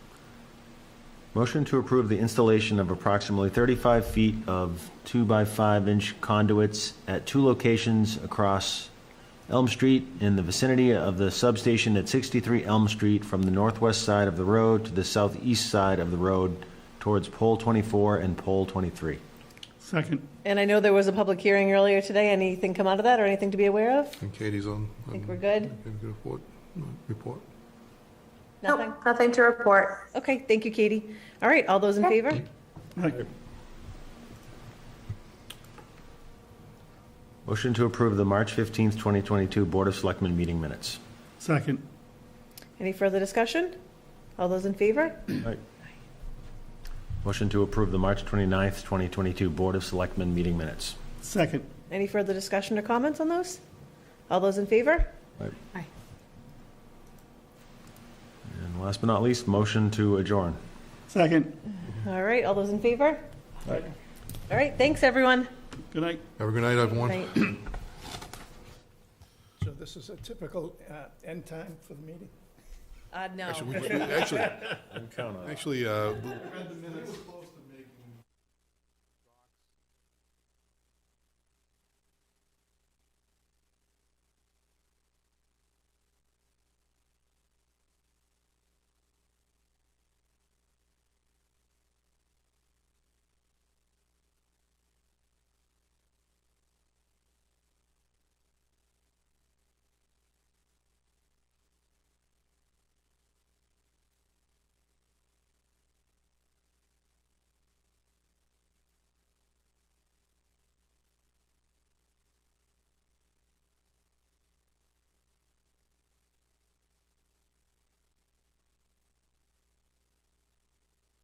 Motion to approve the installation of approximately 35 feet of 2 by 5 inch conduits at two locations across Elm Street in the vicinity of the substation at 63 Elm Street from the northwest side of the road to the southeast side of the road towards pole 24 and pole 23. Second. And I know there was a public hearing earlier today. Anything come out of that or anything to be aware of? And Katie's on. I think we're good. Report, report. Nope, Nothing? Nothing to report. Okay, thank you, Katie. All right, all those in favor? Aye. Motion to approve the March 15th, 2022 Board of Selectmen meeting minutes. Second. Any further discussion? All those in favor? Motion to approve the March 29th, 2022 Board of Selectmen meeting minutes. Second. Any further discussion or comments on those? All those in favor? And last but not least, motion to adjourn. Second. All right, all those in favor? Aye. All right, thanks, everyone. Good night. Have a good night, everyone. Night. So this is a typical uh, end time for the meeting? Uh, no. Actually, we- we- Actually, actually, uh,